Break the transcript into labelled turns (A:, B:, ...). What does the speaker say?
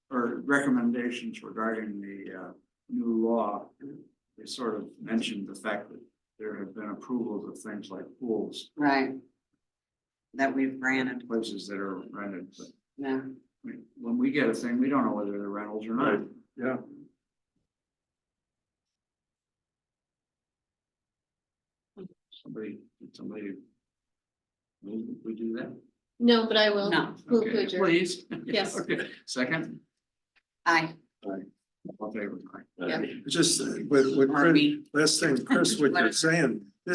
A: recommendations regarding the uh new law. They sort of mentioned the fact that there have been approvals of things like pools,
B: right? That we've granted,
A: places that are rented, but
B: yeah,
A: I mean, when we get a thing, we don't know whether they're rentals or not.
C: Right, yeah.
A: Somebody, somebody. We, we do that?
D: No, but I will.
B: no,
D: Move to
A: Okay,
D: adjourn.
A: Please.
D: Yes.
A: Okay, second.
B: I,
A: All in favor?
D: Yeah.
C: Just uh, with, with,
B: or
C: Chris-
B: me,
C: last thing, Chris, what you're saying,